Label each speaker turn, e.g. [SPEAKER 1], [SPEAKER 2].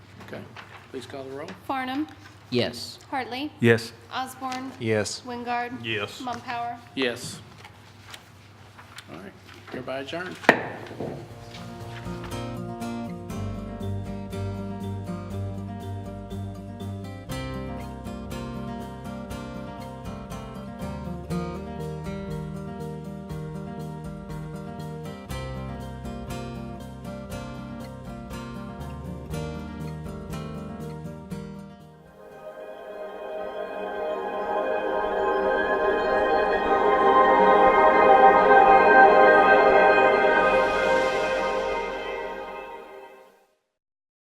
[SPEAKER 1] Okay. Please call the roll.
[SPEAKER 2] Farnum,
[SPEAKER 3] Yes.
[SPEAKER 2] Hartley,
[SPEAKER 4] Yes.
[SPEAKER 2] Osborne,
[SPEAKER 4] Yes.
[SPEAKER 2] Wingard.
[SPEAKER 5] Yes.
[SPEAKER 2] Mumpower.
[SPEAKER 1] Yes. All right, hereby adjourned.